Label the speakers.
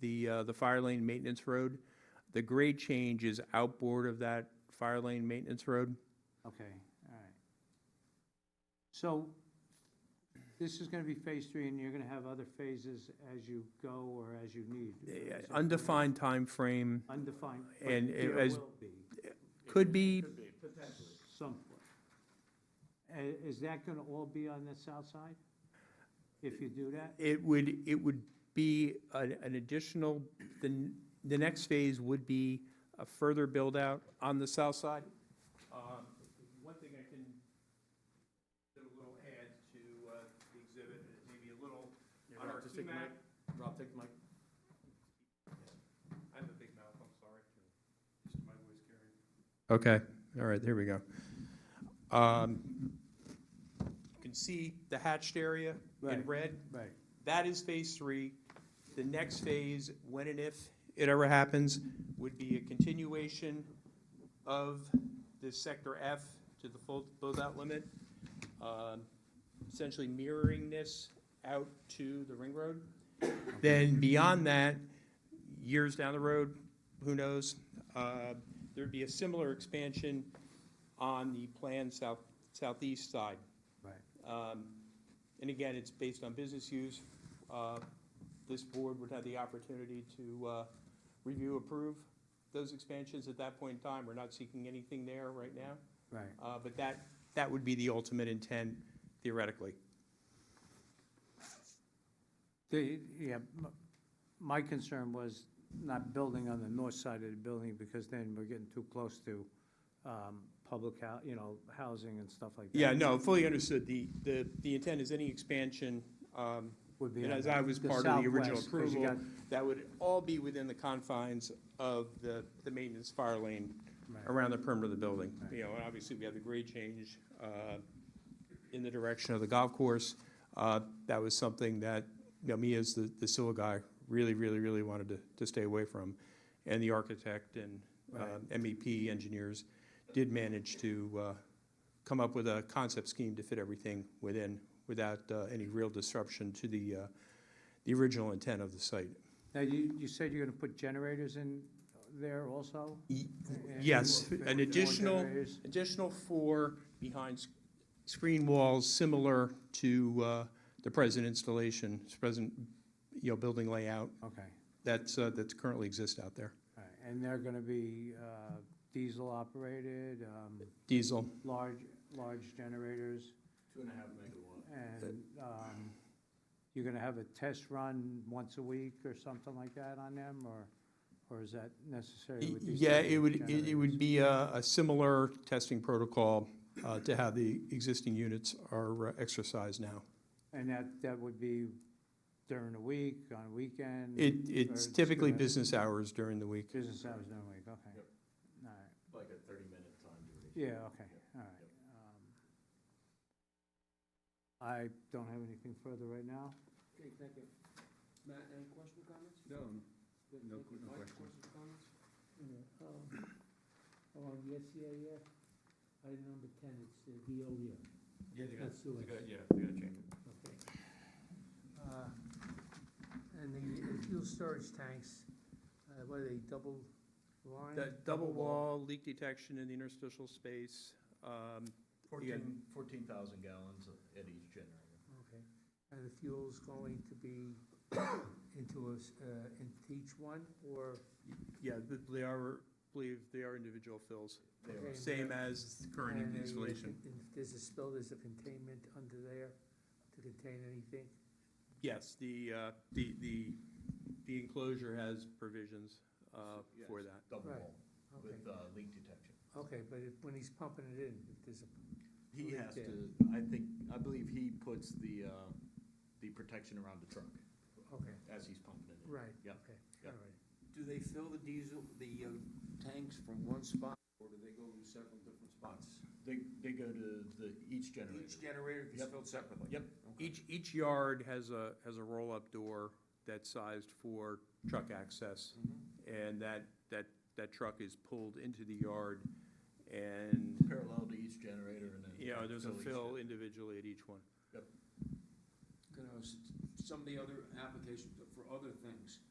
Speaker 1: the, uh, the fire lane maintenance road. The grade change is outboard of that fire lane maintenance road.
Speaker 2: Okay, all right. So this is gonna be phase three, and you're gonna have other phases as you go or as you need?
Speaker 1: Uh,
Speaker 2: is that correct?
Speaker 1: Undefined time frame
Speaker 2: Undefined. but
Speaker 1: and it
Speaker 2: There
Speaker 1: was-
Speaker 2: will be
Speaker 1: could be,
Speaker 2: some. I- Is that gonna all be on the south side? If you do that?
Speaker 1: it would, it would be an an additional, the, n- the next phase would be a further build-out on the south side. Um, One thing I can, do a little add to uh, the exhibit, maybe a little,
Speaker 3: Yeah,
Speaker 1: on
Speaker 3: Rob,
Speaker 1: our
Speaker 3: just take the
Speaker 1: QMAC,
Speaker 3: mic. Rob, take the mic.
Speaker 1: I have a big mouth, I'm sorry. Just my voice carrying. Okay, all right, there we go. Um, You can see the hatched area in
Speaker 2: Right.
Speaker 1: red.
Speaker 2: Right.
Speaker 1: That is phase three. The next phase, when and if it ever happens, would be a continuation of the sector F to the full build-out limit, um, essentially mirroring this out to the ring road. Then beyond that, years down the road, who knows, uh, there'd be a similar expansion on the planned south, southeast side.
Speaker 2: Right.
Speaker 1: Um, And again, it's based on business use. Uh, This board would have the opportunity to uh, review, approve those expansions at that point in time. We're not seeking anything there right now,
Speaker 2: Right.
Speaker 1: Uh, but that, that would be the ultimate intent theoretically.
Speaker 2: The, yeah, m- my concern was not building on the north side of the building, because then we're getting too close to, um, public hou, you know, housing and stuff like that.
Speaker 1: Yeah, no, fully understood. The, the, the intent is any expansion, um,
Speaker 2: Would be
Speaker 1: and
Speaker 2: on
Speaker 1: as I was
Speaker 2: the
Speaker 1: part of the original
Speaker 2: southwest, 'cause you
Speaker 1: approval, that would all be within the confines of the, the maintenance fire lane
Speaker 2: got- right.
Speaker 1: around the perimeter of the building.
Speaker 2: Right.
Speaker 1: You know, and obviously, we have the grade change uh, in the direction of the golf course. Uh, That was something that, you know, me as the, the SIL guy, really, really, really wanted to, to stay away from. And the architect and uh,
Speaker 2: Right.
Speaker 1: MEP engineers did manage to uh, come up with a concept scheme to fit everything within, without uh, any real disruption to the, uh, the original intent of the site.
Speaker 2: Now, you, you said you're gonna put generators in there also?
Speaker 1: Y-
Speaker 2: And-
Speaker 1: Yes,
Speaker 2: and
Speaker 1: an
Speaker 2: more
Speaker 1: additional,
Speaker 2: generators?
Speaker 1: additional four behind s- screen walls, similar to uh, the present installation, s- present, you know, building layout
Speaker 2: Okay,
Speaker 1: that's, uh, that's currently exists out there.
Speaker 2: all right, and they're gonna be, uh, diesel operated, um,
Speaker 1: Diesel,
Speaker 2: large, large generators,
Speaker 3: Two and a half megawatt.
Speaker 2: and, um, you're gonna have a test run once a week or something like that on them, or, or is that necessary
Speaker 1: Y-
Speaker 2: with these?
Speaker 1: yeah,
Speaker 2: type
Speaker 1: it
Speaker 2: of
Speaker 1: would, it- it
Speaker 2: generators?
Speaker 1: would be a, a similar testing protocol uh, to how the existing units are uh, exercised now.
Speaker 2: And that, that would be during the week, on a weekend?
Speaker 1: It,
Speaker 2: Or
Speaker 1: it's
Speaker 2: just
Speaker 1: typically
Speaker 2: gonna-
Speaker 1: business hours during the week.
Speaker 2: Business hours during the week, okay.
Speaker 3: Yep.
Speaker 2: All right.
Speaker 3: Like a thirty-minute time duration.
Speaker 2: Yeah, okay, all right. Um, I don't have anything further right now.
Speaker 4: Okay, thank you. Matt, any questions, comments?
Speaker 3: No,
Speaker 4: Good,
Speaker 3: No
Speaker 4: thank you.
Speaker 3: que- no
Speaker 4: Mike,
Speaker 3: question.
Speaker 4: questions, comments? Along um, the SCAF, item number ten, it's the Veolia.
Speaker 3: yeah, they got,
Speaker 4: That's the
Speaker 3: they
Speaker 4: way.
Speaker 3: got, yeah, they gotta change it.
Speaker 4: Okay. Uh, And the uh, fuel storage tanks, uh, what are they, double line?
Speaker 1: That double wall, leak detection in the interstitial space, um,
Speaker 3: Fourteen, fourteen thousand gallons at each generator.
Speaker 4: Okay, and the fuel's going to be into a, s- uh, into each one, or?
Speaker 1: Yeah, th- they are, believe they are individual fills,
Speaker 3: They
Speaker 4: Okay.
Speaker 3: are,
Speaker 1: same as the
Speaker 4: And
Speaker 1: current
Speaker 4: a-
Speaker 1: installation.
Speaker 4: If there's a spill, there's a containment under there to contain anything?
Speaker 1: Yes, the, uh, the, the, the enclosure has provisions uh, for that.
Speaker 3: double
Speaker 4: Right.
Speaker 3: wall
Speaker 4: Okay,
Speaker 3: with, uh, leak detection.
Speaker 4: okay, but if, when he's pumping it in, if there's a,
Speaker 3: He
Speaker 4: Leak
Speaker 3: has
Speaker 4: there.
Speaker 3: to, I think, I believe he puts the, uh, the protection around the truck
Speaker 4: okay,
Speaker 3: as he's pumping it in.
Speaker 4: right,
Speaker 3: Yeah,
Speaker 4: okay,
Speaker 3: yeah.
Speaker 4: all right.
Speaker 5: Do they fill the diesel, the uh, tanks from one spot, or do they go to several different spots?
Speaker 3: They, they go to the, each generator.
Speaker 5: Each generator is
Speaker 3: Yep.
Speaker 5: filled separately?
Speaker 3: Yep.
Speaker 5: Okay.
Speaker 1: Each, each yard has a, has a roll-up door that's sized for truck access.
Speaker 5: Mhm.
Speaker 1: And that, that, that truck is pulled into the yard and,
Speaker 3: Parallel to each generator and then.
Speaker 1: you know, there's a
Speaker 3: each-
Speaker 1: fill individually at each one.
Speaker 5: You know, s- some of the other applications for other things,